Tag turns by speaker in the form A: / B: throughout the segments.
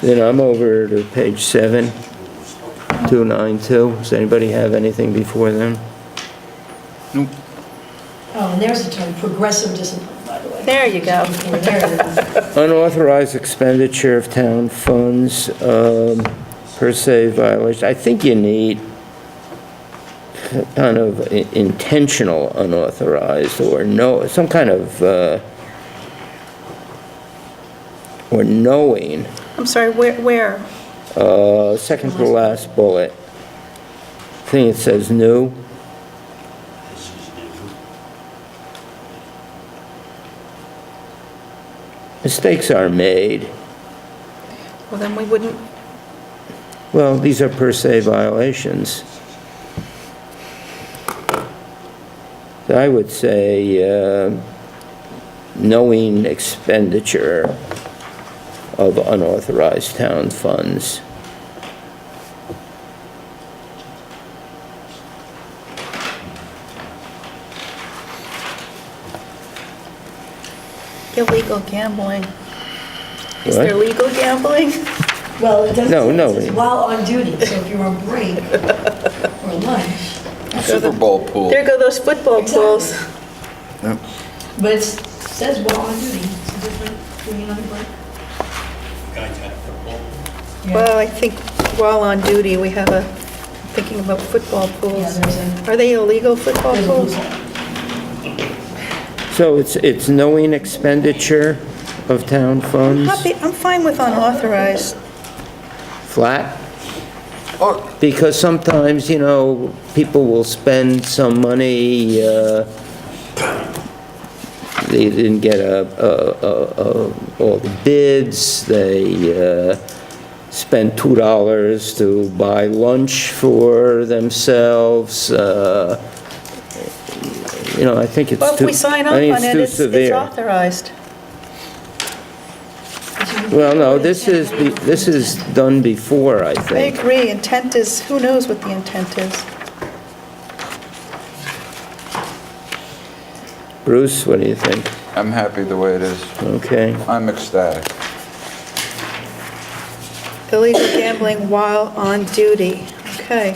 A: Then I'm over to page seven, 292. Does anybody have anything before them?
B: Nope.
C: Oh, and there's a term, progressive discipline, by the way.
D: There you go.
C: There.
A: Unauthorized expenditure of town funds, um, per se violation. I think you need kind of i- intentional unauthorized or no, some kind of, uh, or knowing,
D: I'm sorry, where, where?
A: uh, second to last bullet. I think it says new. Mistakes are made.
D: Well, then we wouldn't,
A: Well, these are per se violations. I would say uh, knowing expenditure of unauthorized town funds.
D: illegal gambling. Is there
A: What?
D: legal gambling?
C: Well, it doesn't.
A: No, no.
C: It says while on duty, so if you're on break or lunch,
B: Super Bowl pool.
D: There go those football pools.
B: Yep.
C: but it says while on duty, it's different, being on break. Yeah.
D: Well, I think while on duty, we have a, thinking about football pools.
C: Yeah, there's
D: Are they illegal football
C: There's a
D: pools?
C: loophole.
A: So it's, it's knowing expenditure of town funds,
D: Happy- I'm fine with unauthorized.
A: flat?
B: Or-
A: Because sometimes, you know, people will spend some money, uh, they didn't get a- a- a- a- all the bids, they uh, spent $2 to buy lunch for themselves. uh, You know, I think it's
D: Well, if
A: too,
D: we sign off
A: I think
D: on
A: it's
D: it,
A: too
D: it's it's
A: severe.
D: authorized.
A: Well, no, this is, be- this is done before, I
D: I
A: think.
D: agree, intent is, who knows what the intent is?
A: Bruce, what do you think?
B: I'm happy the way it is.
A: Okay.
B: I'm ecstatic.
D: Illegal gambling while on duty. Okay,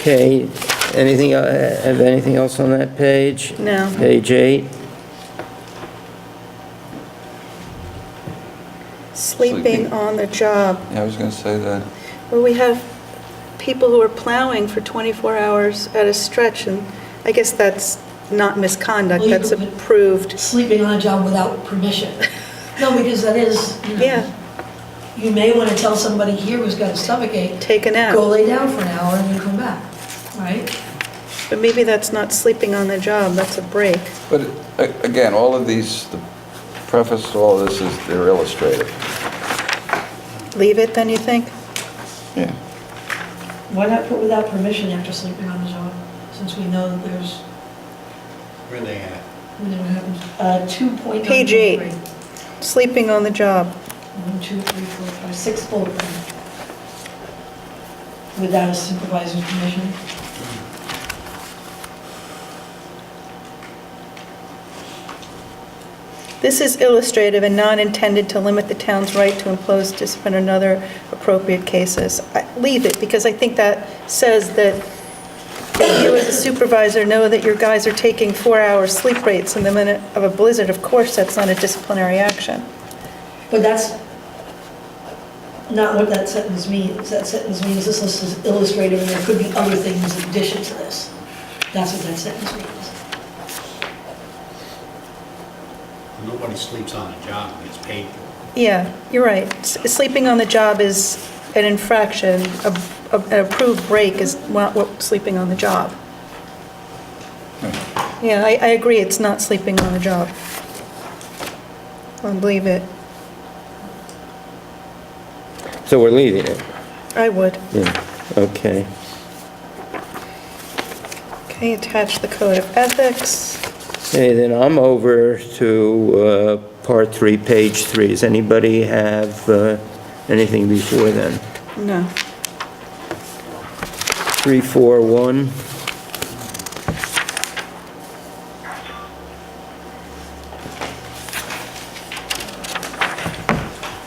A: Okay, anything, el- have anything else on that page?
D: No.
A: Page eight,
D: sleeping on the job.
B: Yeah, I was gonna say that.
D: Well, we have people who are plowing for 24 hours at a stretch, and I guess that's not misconduct,
C: Well, you
D: that's
C: could-
D: approved.
C: Sleeping on a job without permission. No, because that is, you know.
D: Yeah.
C: You may want to tell somebody here who's got a stomachache.
D: Take a nap.
C: Go lay down for an hour and then come back, right?
D: But maybe that's not sleeping on the job, that's a break.
B: But a- again, all of these, the preface to all this is they're illustrative.
D: Leave it, then, you think?
B: Yeah.
C: Why not put without permission after sleeping on the job, since we know that there's,
E: Where they at?
C: we know what happens. Uh, 2.9.
D: Page eight. Sleeping on the job.
C: One, two, three, four, five, six bullet point. Without a supervisor's permission.
D: This is illustrative and not intended to limit the town's right to impose discipline in other appropriate cases. I- Leave it, because I think that says that you as a supervisor know that your guys are taking four-hour sleep rates in the minute of a blizzard. Of course, that's not a disciplinary action.
C: But that's not what that sentence means. That sentence means this list is illustrative and there could be other things in addition to this. That's what that sentence means.
E: Nobody sleeps on the job and gets paid for it.
D: Yeah, you're right. S- Sleeping on the job is an infraction. A- a- An approved break is not what- sleeping on the job. Yeah, I, I agree, it's not sleeping on the job. I believe it.
A: so we're leaving it,
D: I would.
A: yeah, okay.
D: Okay, attach the code of ethics.
A: Okay, then I'm over to uh, part three, page three. Does anybody have uh, anything before then?
D: No.
A: 341.